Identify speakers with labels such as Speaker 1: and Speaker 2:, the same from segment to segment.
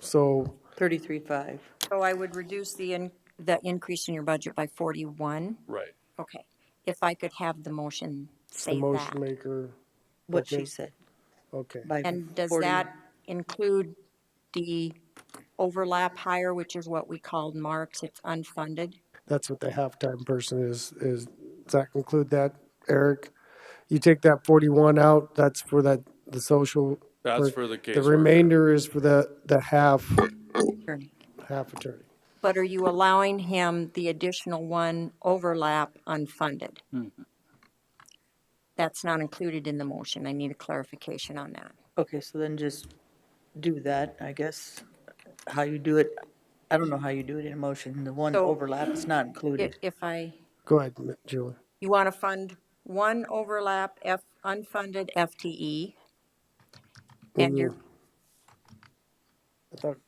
Speaker 1: So,
Speaker 2: 33.5.
Speaker 3: So I would reduce the, in- the increase in your budget by 41?
Speaker 4: Right.
Speaker 3: Okay. If I could have the motion
Speaker 1: the
Speaker 3: say
Speaker 1: motion
Speaker 3: that.
Speaker 1: maker,
Speaker 2: what
Speaker 1: Okay.
Speaker 2: she said.
Speaker 1: okay.
Speaker 2: by
Speaker 3: And does
Speaker 2: 40.
Speaker 3: that include the overlap hire, which is what we called marks, it's unfunded?
Speaker 1: That's what the halftime person is, is, does that conclude that, Eric? You take that forty-one out, that's for that, the social.
Speaker 4: That's for the
Speaker 1: The
Speaker 4: caseworker.
Speaker 1: remainder is for the, the half,
Speaker 3: Attorney.
Speaker 1: half attorney.
Speaker 3: But are you allowing him the additional one overlap unfunded? That's not included in the motion. I need a clarification on that.
Speaker 2: Okay, so then just do that, I guess. How you do it, I don't know how you do it in a motion. The one
Speaker 3: So-
Speaker 2: overlap is not
Speaker 3: If,
Speaker 2: included.
Speaker 3: if I,
Speaker 1: Go ahead, Julie.
Speaker 3: you want to fund one overlap F, unfunded FTE? And you're,
Speaker 2: Mm.
Speaker 1: I thought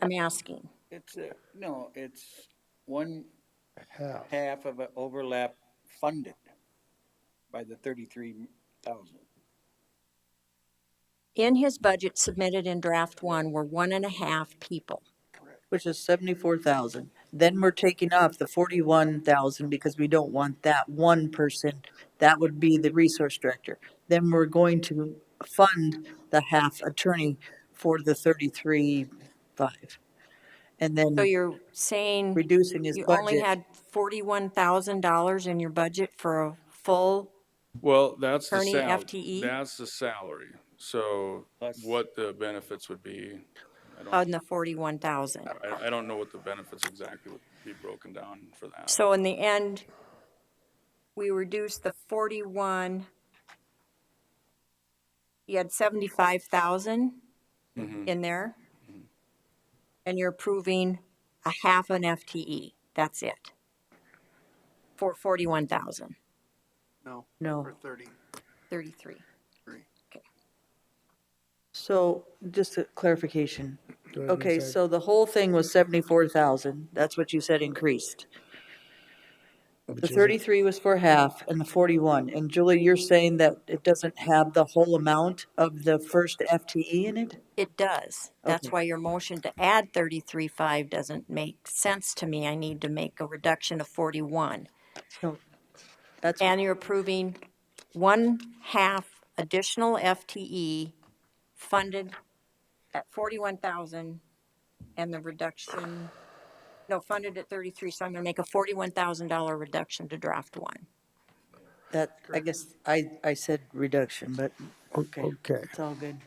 Speaker 3: I'm asking,
Speaker 5: It's, uh, no, it's one
Speaker 1: half,
Speaker 5: half of an overlap funded by the thirty-three thousand.
Speaker 3: in his budget submitted in draft one were one and a half people.
Speaker 2: Which is seventy-four thousand. Then we're taking off the forty-one thousand because we don't want that one person. That would be the resource director. Then we're going to fund the half attorney for the thirty-three five. And then
Speaker 3: So you're saying
Speaker 2: reducing Mm. his
Speaker 3: you only
Speaker 2: budget.
Speaker 3: had forty-one thousand dollars in your budget for a full
Speaker 4: Well, that's the
Speaker 3: Attorney E?
Speaker 4: sal-
Speaker 3: FTE?
Speaker 4: That's the salary. So
Speaker 5: Plus-
Speaker 4: what the benefits would be,
Speaker 3: on the forty-one thousand?
Speaker 4: I, I don't know what the benefits exactly would be broken down for that.
Speaker 3: So in the end, we reduced the forty-one. You had seventy-five thousand in there. And you're approving a half an FTE. That's it. For forty-one thousand,
Speaker 6: No,
Speaker 2: No.
Speaker 6: for thirty.
Speaker 3: thirty-three.
Speaker 2: So just a clarification.
Speaker 1: go ahead and
Speaker 2: Okay,
Speaker 1: say-
Speaker 2: so the whole thing was seventy-four thousand. That's what you said increased. The
Speaker 1: is a-
Speaker 2: thirty-three was for half and the forty-one. And Julie, you're saying that it doesn't have the whole amount of the first FTE in it?
Speaker 3: It does. That's
Speaker 2: Okay.
Speaker 3: why your motion to add thirty-three five doesn't make sense to me. I need to make a reduction of forty-one.
Speaker 2: So That's,
Speaker 3: And you're approving one half additional FTE funded at forty-one thousand and the reduction, no, funded at thirty-three, so I'm gonna make a forty-one thousand dollar reduction to draft one.
Speaker 2: that, I guess, I, I said reduction, but, okay,
Speaker 1: Okay,
Speaker 2: it's all good.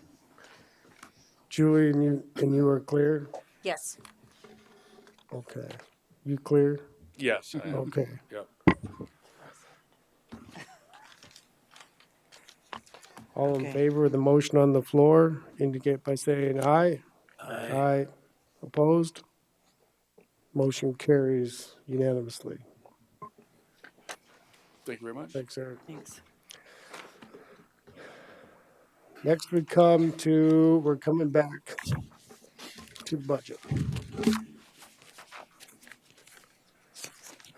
Speaker 1: Julie, and you, and you are clear?
Speaker 3: Yes.
Speaker 1: Okay. You clear?
Speaker 4: Yes, I am.
Speaker 1: Okay.
Speaker 4: Yep.
Speaker 1: All in
Speaker 2: Okay.
Speaker 1: favor of the motion on the floor indicate by saying aye. Aye. Opposed? Motion carries unanimously.
Speaker 4: Thank you very much.
Speaker 1: Thanks, Eric.
Speaker 2: Thanks.
Speaker 1: Next we come to, we're coming back to budget.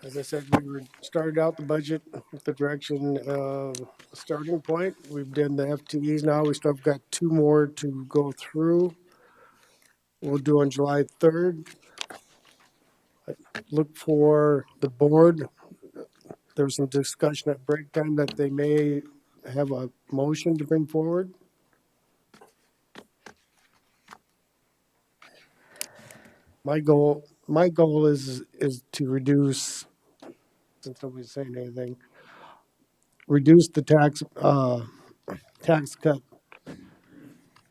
Speaker 1: As I said, we were, started out the budget with the direction of a starting point. We've done the FTEs now. We still have got two more to go through. We'll do on July third. Look for the board. There was some discussion at break time that they may have a motion to bring forward. My goal, my goal is, is to reduce, since nobody's saying anything, reduce the tax, uh, tax cut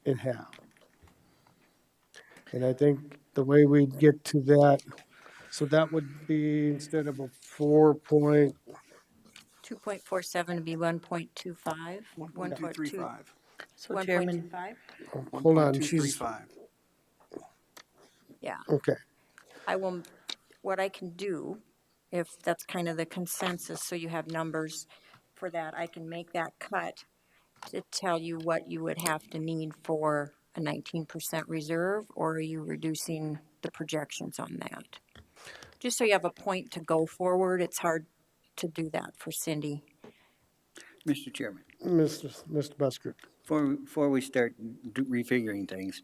Speaker 1: in half. And I think the way we'd get to that, so that would be instead of a four point,
Speaker 3: Two point four seven would be one point two five.
Speaker 6: One, two, three, five.
Speaker 2: So
Speaker 3: One point
Speaker 2: Chairman,
Speaker 3: two five?
Speaker 1: hold on,
Speaker 6: 1.235.
Speaker 1: she's,
Speaker 3: Yeah.
Speaker 1: okay.
Speaker 3: I will, what I can do, if that's kind of the consensus, so you have numbers for that, I can make that cut to tell you what you would have to need for a nineteen percent reserve, or are you reducing the projections on that? Just so you have a point to go forward, it's hard to do that for Cindy.
Speaker 5: Mr. Chairman,
Speaker 1: Mr. Mr. Busker.
Speaker 5: before, before we start do- refiguring things,